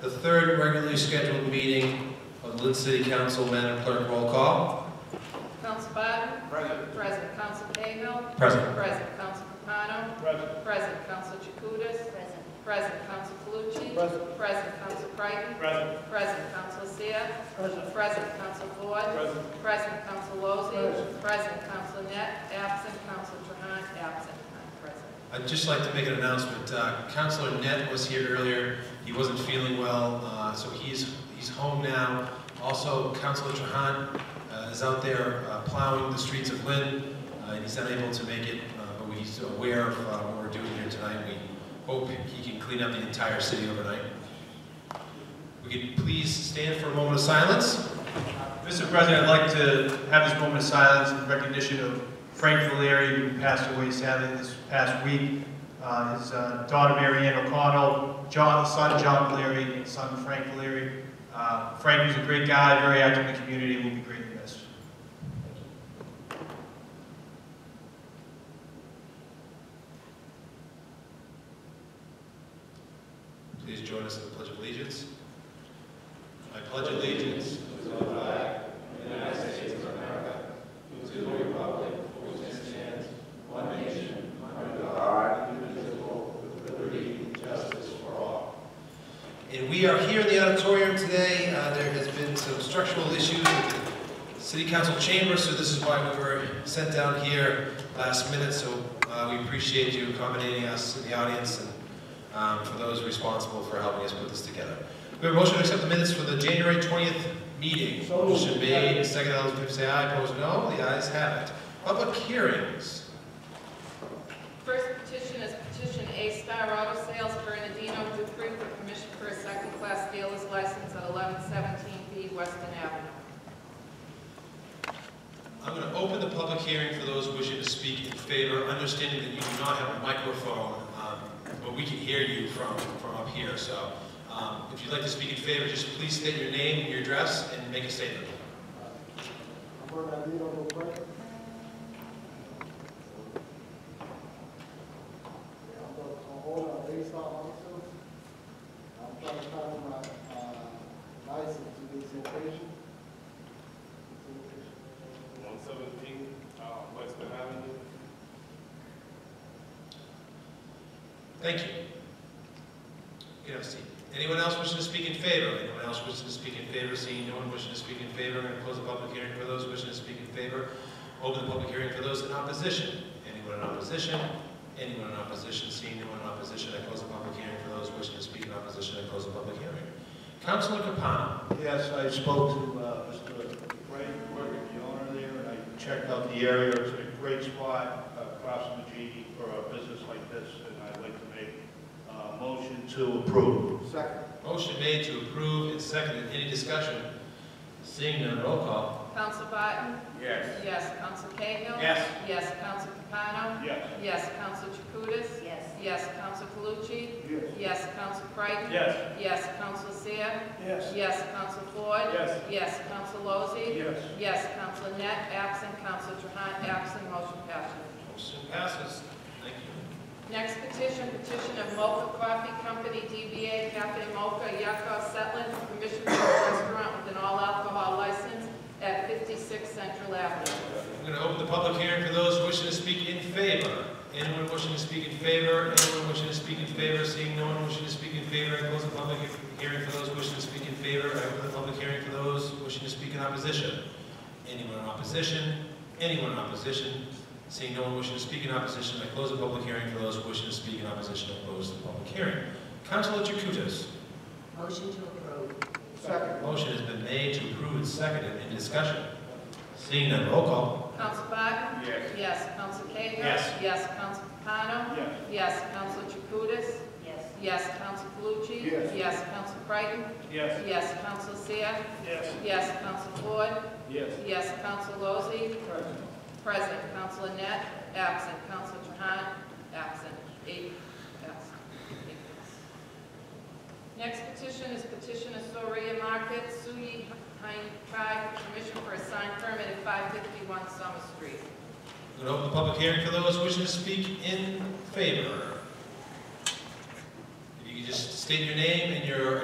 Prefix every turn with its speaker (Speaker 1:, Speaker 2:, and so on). Speaker 1: the third regularly scheduled meeting of the Lynn City Council. Madam Clerk, roll call.
Speaker 2: Council Biden,
Speaker 3: Present.
Speaker 2: President Council Cahill,
Speaker 1: Present.
Speaker 2: President Council Capano,
Speaker 3: Present.
Speaker 2: President Council Jacutis,
Speaker 4: Present.
Speaker 2: President Council Calucci,
Speaker 3: Present.
Speaker 2: President Council Creighton,
Speaker 3: Present.
Speaker 2: President Council Seah,
Speaker 3: Present.
Speaker 2: President Council Ford,
Speaker 3: Present.
Speaker 2: President Council Lozey,
Speaker 3: Present.
Speaker 2: President Council Net, absent Council Trahan, absent, not present.
Speaker 1: I'd just like to make an announcement. Uh, Counselor Net was here earlier. He wasn't feeling well, uh, so he's, he's home now. Also, Counselor Trahan uh, is out there uh, plowing the streets of Lynn, uh, and he's unable to make it, uh, but he's aware of uh, what we're doing here tonight. We hope he can clean up the entire city overnight. We could please stand for a moment of silence.
Speaker 5: Mr. President, I'd like to have this moment of silence in recognition of Frank Valeri, who passed away sadly this past week. Uh, His uh, daughter, Mary Ann O'Connell, John, son John Valeri, and son Frank Valeri. Uh, Frank was a great guy, very active in the community, will be greatly missed.
Speaker 1: Please join us in the Pledge of Allegiance. I pledge allegiance to the flag of the United States of America and to the republic for which it stands, one nation, under God, indivisible, with liberty and justice for all. And we are here in the auditorium today. Uh, There has been some structural issues with the city council chamber, so this is why we were sent down here last minute. So uh, we appreciate you accommodating us in the audience and um, for those responsible for helping us put this together. We have a motion to accept the minutes for the January 20th meeting.
Speaker 3: So moved.
Speaker 1: Motion made, second, all those in favor say aye, opposed no, the ayes have it. Public hearings.
Speaker 2: First petition is petition A Star Auto Sales Bernardino Dupree for permission for a second-class dealer's license at 1117 B Weston Avenue.
Speaker 1: I'm going to open the public hearing for those wishing to speak in favor, understanding that you do not have a microphone, um, but we can hear you from, from up here. So um, if you'd like to speak in favor, just please state your name, your address, and make a statement.
Speaker 6: I'm trying to find my, uh, license to this location.
Speaker 3: One seventeen, uh, Western Avenue.
Speaker 1: Thank you. You have a seat. Anyone else wishing to speak in favor? Anyone else wishing to speak in favor? Seeing no one wishing to speak in favor, I'm going to close the public hearing for those wishing to speak in favor. Open the public hearing for those in opposition. Anyone in opposition? Anyone in opposition? Seeing no one in opposition, I close the public hearing for those wishing to speak in opposition. I close the public hearing. Councilor Capano.
Speaker 5: Yes, I spoke to uh, Mr. Ray, Morgan, the owner there, and I checked out the area. It's a great spot uh, across from the G for a business like this, and I'd like to make a motion to approve.
Speaker 6: Second.
Speaker 1: Motion made to approve and seconded. Any discussion? Seeing none, roll call.
Speaker 2: Council Barton?
Speaker 3: Yes.
Speaker 2: Yes. Council Cahill?
Speaker 5: Yes.
Speaker 2: Yes, Council Capano?
Speaker 3: Yes.
Speaker 2: Yes, Council Jacutis?
Speaker 4: Yes.
Speaker 2: Yes, Council Calucci?
Speaker 3: Yes.
Speaker 2: Yes, Council Creighton?
Speaker 3: Yes.
Speaker 2: Yes, Council Seah?
Speaker 3: Yes.
Speaker 2: Yes, Council Ford?
Speaker 3: Yes.
Speaker 2: Yes, Council Lozey?
Speaker 3: Yes.
Speaker 2: Yes, Council Net, absent Council Trahan, absent, motion passes.
Speaker 1: Motion passes. Thank you.
Speaker 2: Next petition, petition of Mocha Coffee Company, DBA Cafe Mocha, Yakov Settlin, for permission for a restaurant with an all-alcohol license at 56 Central Avenue.
Speaker 1: I'm going to open the public hearing for those wishing to speak in favor. Anyone wishing to speak in favor? Anyone wishing to speak in favor? Seeing no one wishing to speak in favor, I close the public he- hearing for those wishing to speak in favor. I open the public hearing for those wishing to speak in opposition. Anyone in opposition? Anyone in opposition? Seeing no one wishing to speak in opposition, I close the public hearing for those wishing to speak in opposition. I close the public hearing. Councilor Jacutis,
Speaker 4: Motion to approve.
Speaker 6: Second.
Speaker 1: motion has been made to approve and seconded. Any discussion? Seeing none, roll call.
Speaker 2: Council Barton?
Speaker 3: Yes.
Speaker 2: Yes. Council Cahill?
Speaker 5: Yes.
Speaker 2: Yes, Council Capano?
Speaker 3: Yes.
Speaker 2: Yes, Council Jacutis?
Speaker 4: Yes.
Speaker 2: Yes, Council Calucci?
Speaker 6: Yes.
Speaker 2: Yes, Council Creighton?
Speaker 3: Yes.
Speaker 2: Yes, Council Seah?
Speaker 3: Yes.
Speaker 2: Yes, Council Ford?
Speaker 3: Yes.
Speaker 2: Yes, Council Lozey? Present, Council Annette, absent, Council Trahan, absent, eight, absent. Eight yes. Next petition is petition of Soria Market, Suyi Hein Kai, permission for a sign permit at 551 Summer Street.
Speaker 1: I'm going to open the public hearing for those wishing to speak in favor. If you could just state your name and your